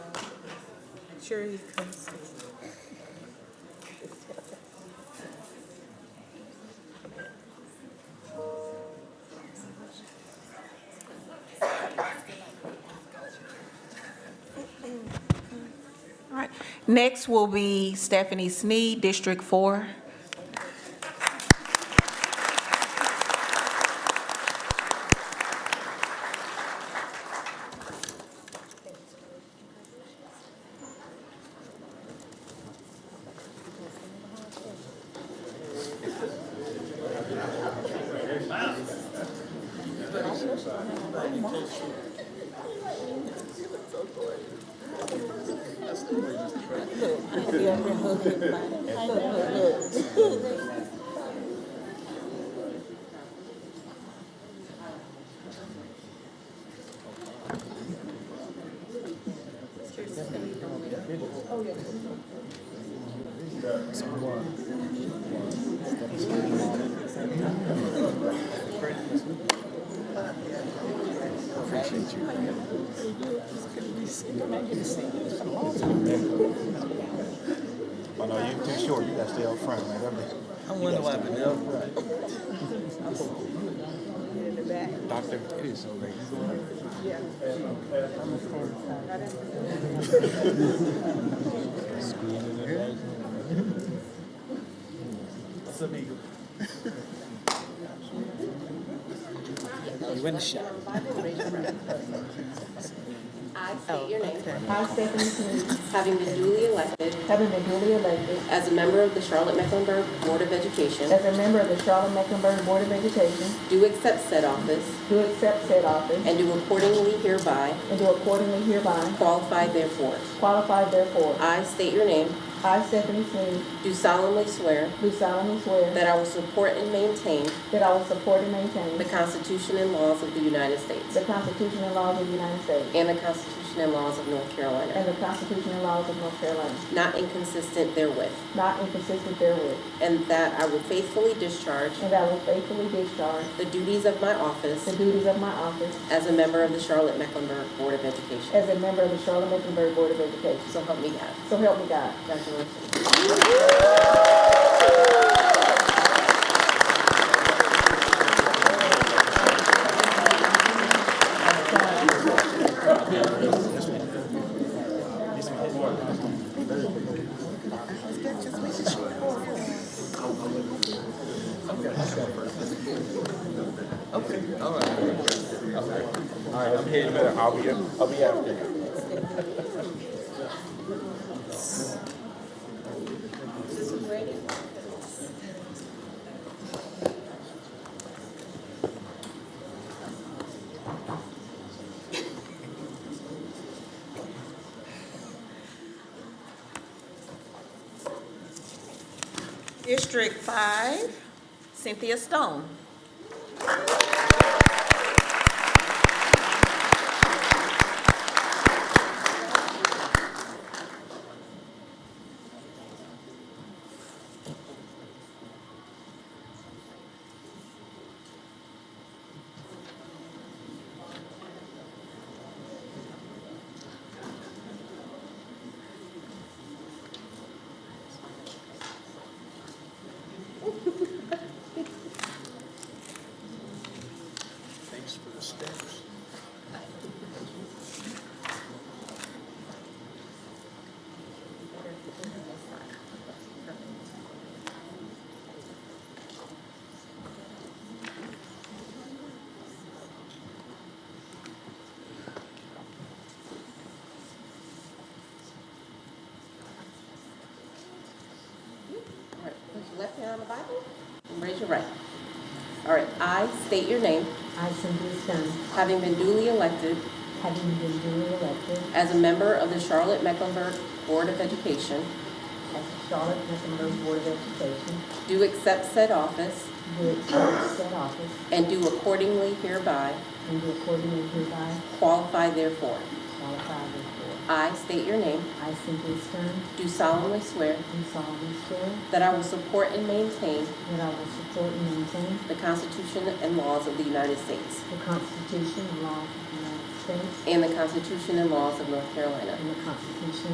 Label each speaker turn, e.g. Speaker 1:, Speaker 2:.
Speaker 1: sure he comes.
Speaker 2: All right. Next will be Stephanie Sneed, District 4.
Speaker 1: Be out there hugging everybody. Look, look, look.
Speaker 3: Oh no, you're too short. You gotta stay up front, man. That'd be-
Speaker 4: I wonder why Vanilla.
Speaker 3: Doctor, it is so late.
Speaker 4: You in the shot.
Speaker 5: I state your name.
Speaker 6: I, Stephanie Smith,
Speaker 5: Having been duly elected
Speaker 6: having been duly elected
Speaker 5: as a member of the Charlotte Mecklenburg Board of Education,
Speaker 6: as a member of the Charlotte-Mecklenburg Board of Education,
Speaker 5: do accept said office
Speaker 6: do accept said office
Speaker 5: and do accordingly hereby
Speaker 6: and do accordingly hereby
Speaker 5: qualify therefore.
Speaker 6: qualify therefore.
Speaker 5: I state your name,
Speaker 6: I, Stephanie Smith,
Speaker 5: do solemnly swear
Speaker 6: do solemnly swear
Speaker 5: that I will support and maintain
Speaker 6: that I will support and
Speaker 5: the
Speaker 6: maintain
Speaker 5: Constitution and laws of the United States
Speaker 6: the Constitution and laws of the United States
Speaker 5: and the Constitution and laws of North Carolina,
Speaker 6: and the Constitution and laws of North Carolina,
Speaker 5: not inconsistent therewith,
Speaker 6: not inconsistent therewith,
Speaker 5: and that I will faithfully discharge
Speaker 6: and that I will faithfully discharge
Speaker 5: the duties of my
Speaker 6: the
Speaker 5: office
Speaker 6: duties of my office
Speaker 5: as a member of the Charlotte Mecklenburg Board of Education.
Speaker 6: as a member of the Charlotte-Mecklenburg Board of Education.
Speaker 5: So help me God.
Speaker 6: So help me God.
Speaker 5: Congratulations.
Speaker 3: All right, I'm here in a minute. I'll be, I'll be after you.
Speaker 2: District 5, Cynthia Stone.
Speaker 3: Thanks for the steps.
Speaker 5: All right, put your left hand on the Bible and raise your right. All right, I state your name,
Speaker 6: I, Cynthia Stone,
Speaker 5: having been duly elected
Speaker 6: having been duly elected
Speaker 5: as a member of the Charlotte Mecklenburg Board of Education,
Speaker 6: as Charlotte Mecklenburg Board of Education,
Speaker 5: do accept said office
Speaker 6: do accept said office
Speaker 5: and do accordingly hereby
Speaker 6: and do accordingly hereby
Speaker 5: qualify therefore.
Speaker 6: qualify therefore.
Speaker 5: I state your name,
Speaker 6: I, Cynthia Stern,
Speaker 5: do solemnly swear
Speaker 6: do solemnly swear
Speaker 5: that I will support and maintain
Speaker 6: that I will support and maintain
Speaker 5: the Constitution and laws of the United States
Speaker 6: the Constitution and laws of the United States
Speaker 5: and the Constitution and laws of North Carolina,
Speaker 6: and the Constitution